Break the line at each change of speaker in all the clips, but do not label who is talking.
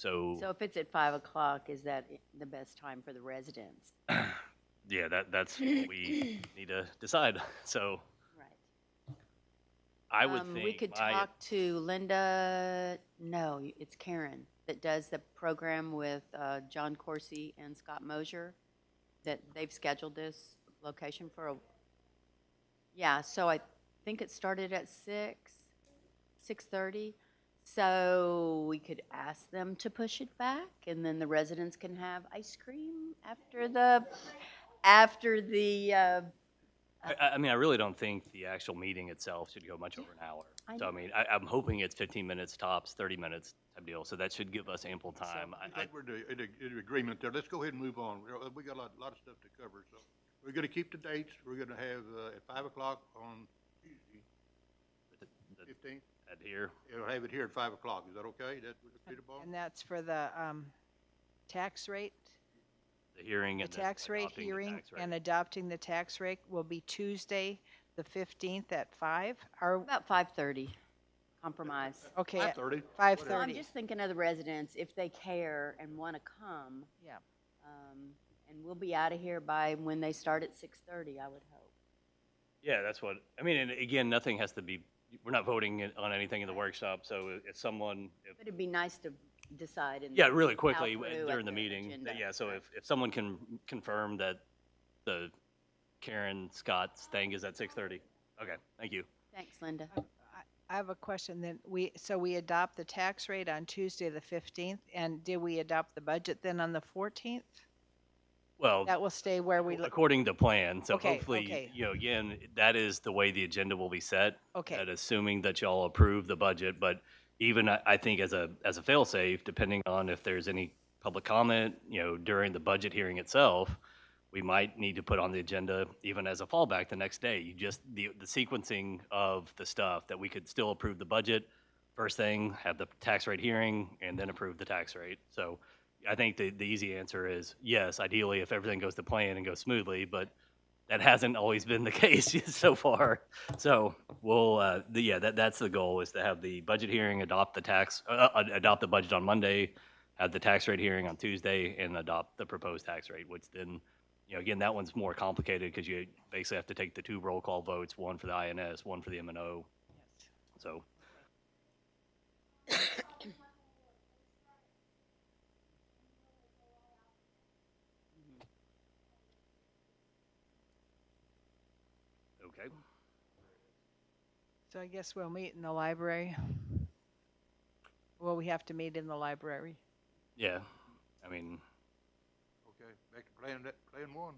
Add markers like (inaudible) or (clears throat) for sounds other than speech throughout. So if it's at five o'clock, is that the best time for the residents?
(clears throat) yeah, that that's what we need to decide. (laughs) So
Right.
I would
Um,
think
We could
my-
talk to Linda, no, it's Karen, that does the program with uh, John Corsi and Scott Mosier, that they've scheduled this location for a, yeah, so I think it started at six, six-thirty. So we could ask them to push it back, and then the residents can have ice cream after the, after the, uh,
I, I- I mean, I really don't think the actual meeting itself should go much over an hour.
I
so I
know.
mean, I, I'm hoping it's 15 minutes tops, 30 minutes type deal. So that should give us ample time. I,
I
I,
think we're in, a- in agreement there. Let's go ahead and move on. We're- We got a lot, lot of stuff to cover, so we're gonna keep the dates. We're gonna have, uh, at five o'clock on Tuesday,
the-
fifteenth.
here,
We'll have it here at five o'clock. Is that okay? That, Peter Ball?
And that's for the um, tax rate?
the hearing,
The
and then
tax rate
adopting the
hearing
tax rate.
and adopting the tax rate will be Tuesday, the 15th at 5? Or,
about five-thirty, compromise.
okay, at
Five-thirty.
5:30.
I'm just thinking of the residents, if they care and want to come,
yeah.
um, and we'll be out of here by when they start at six thirty, I would hope.
Yeah, that's what, I mean, and again, nothing has to be, we're not voting in- on anything in the workshop. So if- if someone, if
But it'd be nice to decide in.
Yeah, really quickly uh,
through at
during the
the
meeting.
agenda.
Yeah, so if, if someone can confirm that the Karen Scott's thing is at 6:30. Okay, thank you.
Thanks, Linda.
I have a question then. We, so we adopt the tax rate on Tuesday, the 15th, and did we adopt the budget then on the 14th?
Well,
That will stay where we, look.
according to plan, so
Okay,
hopefully,
okay.
you know, again, that is the way the agenda will be set.
okay,
That assuming that y'all approve the budget, but even I, I think as a, as a fail-safe, depending on if there's any public comment, you know, during the budget hearing itself, we might need to put on the agenda even as a fallback the next day. You just, the, the sequencing of the stuff that we could still approve the budget first thing, have the tax rate hearing, and then approve the tax rate. So I think the, the easy answer is yes, ideally if everything goes to plan and goes smoothly, but that hasn't always been the (laughs) case so far. So we'll, uh, the, yeah, that, that's the goal is to have the budget hearing, adopt the tax, uh, uh, adopt the budget on Monday, have the tax rate hearing on Tuesday, and adopt the proposed tax rate, which then, you know, again, that one's more complicated because you basically have to take the two roll call votes, one for the INS, one for the MNO. So okay,
so I guess we'll meet in the library. Well, we have to meet in the library.
yeah, I mean,
Okay, back to plan, that, plan one.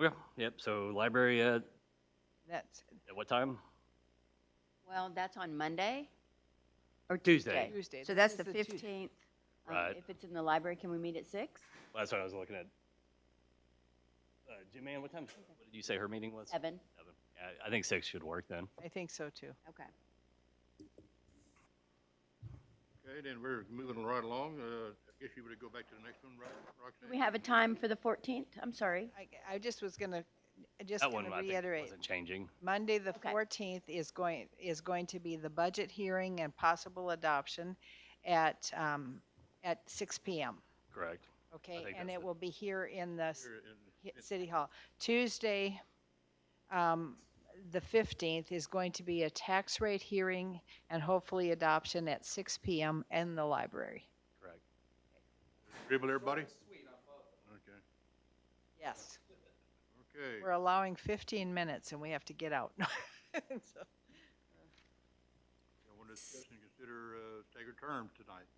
okay, yep. So library at,
That's
at what time?
Well, that's on Monday? Or
Tuesday.
Tuesday.
So that's the
This is Tuesday.
fifteenth.
Right.
If it's in the library, can we meet at six?
That's what I was looking at. Uh, Jim Ann, what time, what did you say her meeting was?
Seven?
Seven. Yeah, I think six should work then.
I think so too.
Okay.
Okay, then we're moving right along. Uh, I guess you would go back to the next one, right, Roxanne?
Do we have a time for the fourteenth? I'm sorry.
I, I just was gonna, I just
That one,
gonna
I think,
reiterate.
wasn't changing.
Monday, the
Okay.
fourteenth is going, is going to be the budget hearing and possible adoption at, um, at six P M.
Correct.
Okay,
think
and
that's
it
it.
will be here in the s-
Here in-
hi- City Hall. Tuesday, um, the fifteenth is going to be a tax rate hearing and hopefully adoption at six P M in the library.
Correct.
Dribble everybody? Okay,
Yes.
okay.
We're allowing fifteen minutes and we have to get out. (laughs) So-
I want to discuss and consider, uh, staggered terms tonight.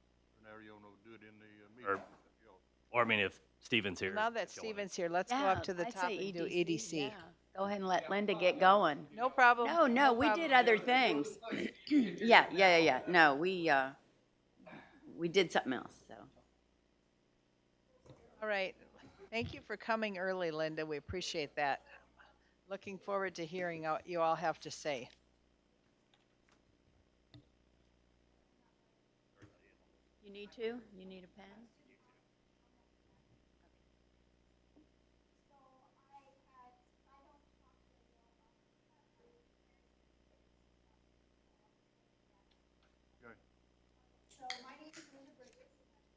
Now you want to do it in the uh,
Or-
meeting.
Or I mean, if Steven's here.
Now that
if y'all wanna-
Steven's here, let's go up
Yeah,
to the
I'd
top
say E
and do E EDC.
yeah. Go ahead and let Linda get going.
No problem.
No, no, we
problem.
did other things. (clears throat) Yeah, yeah, yeah, yeah. No, we, uh, we did something else, so.
All right. Thank you for coming early, Linda. We appreciate that. Looking forward to hearing what you all have to say.
You need to? You need a pen?